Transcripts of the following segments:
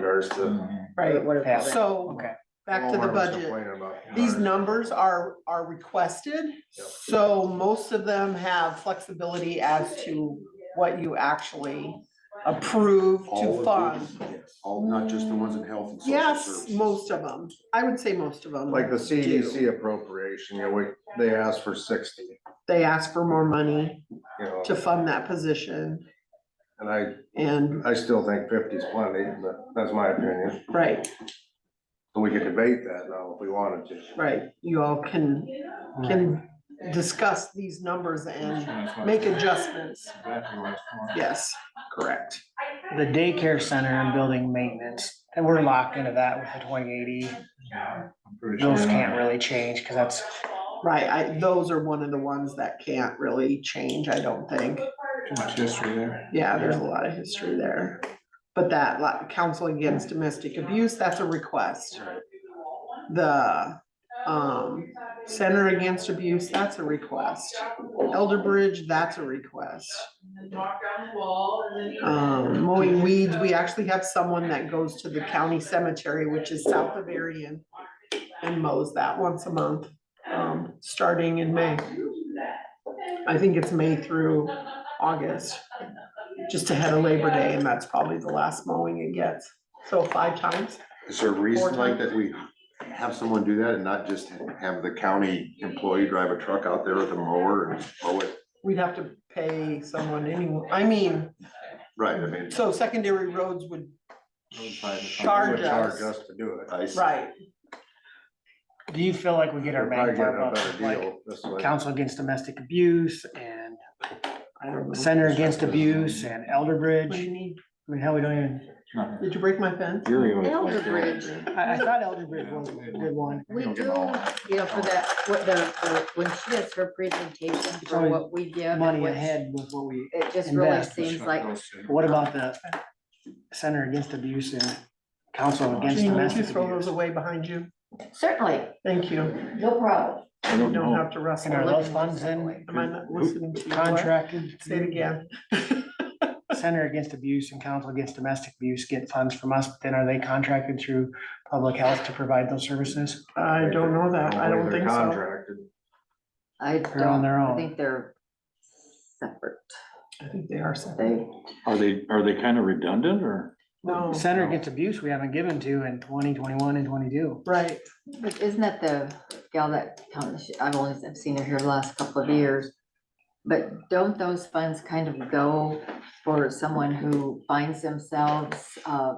regards to. Right, Whatever. so Okay. back to the Walmart was budget. complaining about These Walmart. numbers are, are requested, Yep. so most of them have flexibility as to what you actually approve All to of fund. these? All, not just the ones in health and social Yes, services? most of them. I would say most of them. Like the do. CDC appropriation, you know, we, they asked for sixty, They ask for more money you know, to fund that position and I, and, I still think 50 is plenty, but that's my opinion. right, So we could debate that now if we wanted to. right. You all can, can discuss these numbers and make adjustments. Yes, correct. The daycare center and building maintenance, and we're locked into that with the twenty eighty. Those can't really change, cause that's, Right, I, those are one of the ones that can't really change, I don't think. Too much history there. Yeah, there's a lot of history there. But that, like, counsel against domestic abuse, that's a request. The, um, center against abuse, that's a request. Elder Bridge, that's a request. Um, mowing weeds, we actually have someone that goes to the county cemetery, which is South Bavarian, and mows that once a month, um, starting in May. I think it's May through August, just ahead of Labor Day, and that's probably the last mowing it gets. So five times. Is there a reason like that we have someone do that and not just have the county employee drive a truck out there with a mower and mow it? We'd have to pay someone anyway. I mean, Right, I mean, so secondary roads would, Charge us. to do it. I, s- right, do you feel like we get our We'll probably get bang for a our buck? better Like deal this way. council against domestic abuse and I don't know. center against abuse and elder What do bridge. you need? I mean, hell, we don't even, Did you break my fence? Elder Bridge, I, I thought elder bridge was a good one. we do, you know, for that, what the, the- when she does her presentation It's for only what we give. and Money what- ahead with what we, It just really invest, seems like, what about the center against abuse and council against Jean, would you domestic throw abuse? those away behind you? certainly, Thank you. no problem. I You don't don't know. have to wrestle. And are Am those funds in I not listening to you? What? contracted? Say it again. Center Against Abuse and Council Against Domestic Abuse get funds from us, but then are they contracted through public health to provide those services? I don't know that. I don't They're think so. Contracted. I They're on don't, their I own. think they're separate, I think they are separate. they, Are they, are they kind of redundant or? No, Center Against Abuse, we haven't given to in twenty twenty-one and twenty-two. right. but isn't that the gal that, come- she- I've only, I've seen her here the last couple of years. But don't those funds kind of go for someone who finds themselves, uh,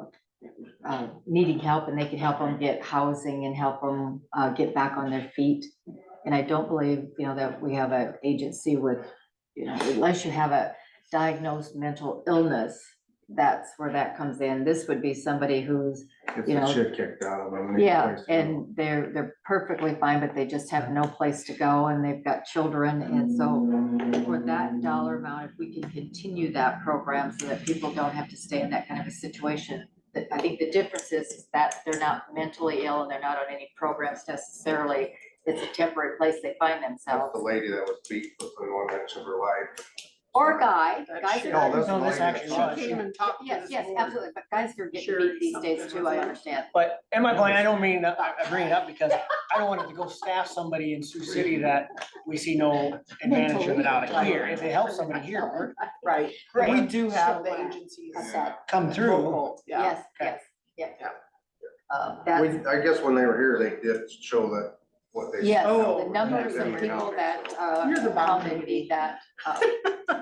uh, needing help and they can help them get housing and help them, uh, get back on their feet? And I don't believe, you know, that we have an agency with, you know, unless you have a diagnosed mental illness, that's where that comes in. This would be somebody who's If You the know. shit kicked out of them. they need a yeah, place to go. and they're, they're perfectly fine, but they just have no place to go and they've got children. And so for that dollar amount, if we can continue that program so that people don't have to stay in that kind of a situation. that- I think the difference is is that they're not mentally ill and they're not on any programs necessarily. It's a temporary place they find That's the themselves. lady that was beat within one inch of her life. Or a guy, guys she- are. No, that's No, the lady this that- actually She was. came and talked to Yes, this yes, board. absolutely, but guys are getting Sherry beat these days something too, or I something. understand. But in my point, I don't mean, I I bring it up because I don't want it to go staff somebody in Sioux City that we see no advantage of it out of here. If it helps somebody here, we're Right. Right. We do have the Right. agencies. Got that. come through. local, Yeah. Yes, yes, yeah. Yeah. Uh, that's, We- I guess when they were here, they did show that what they. yes, Oh, the numbers yeah, of yeah. people that, uh, You're the how boundary. many that, uh,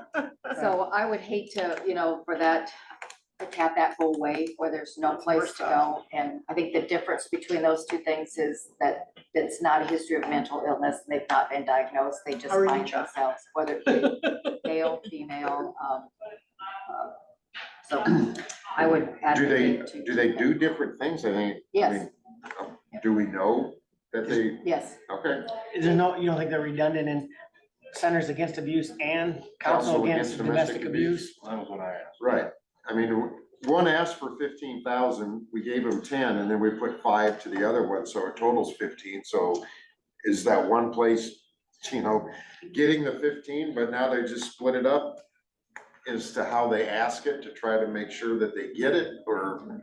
so I would hate to, you know, for that, to have that go away where there's no That's worse place to off. go. And I think the difference between those two things is that it's not a history of mental illness, and they've not been diagnosed, they just How are you, find Chuck? themselves, whether it be male, female, um, uh, so I would do they, advocate to. do they do different things? I think, I Yes, mean, do we know that they, yes, okay, There's no, you don't think they're redundant in Centers Against Abuse and Council Against Domestic Abuse? That was what I asked. right. I mean, one asked for fifteen thousand, we gave them ten, and then we put five to the other one, so it totals fifteen, so is that one place, you know, getting the fifteen, but now they just split it up as to how they ask it to try to make sure that they get it, or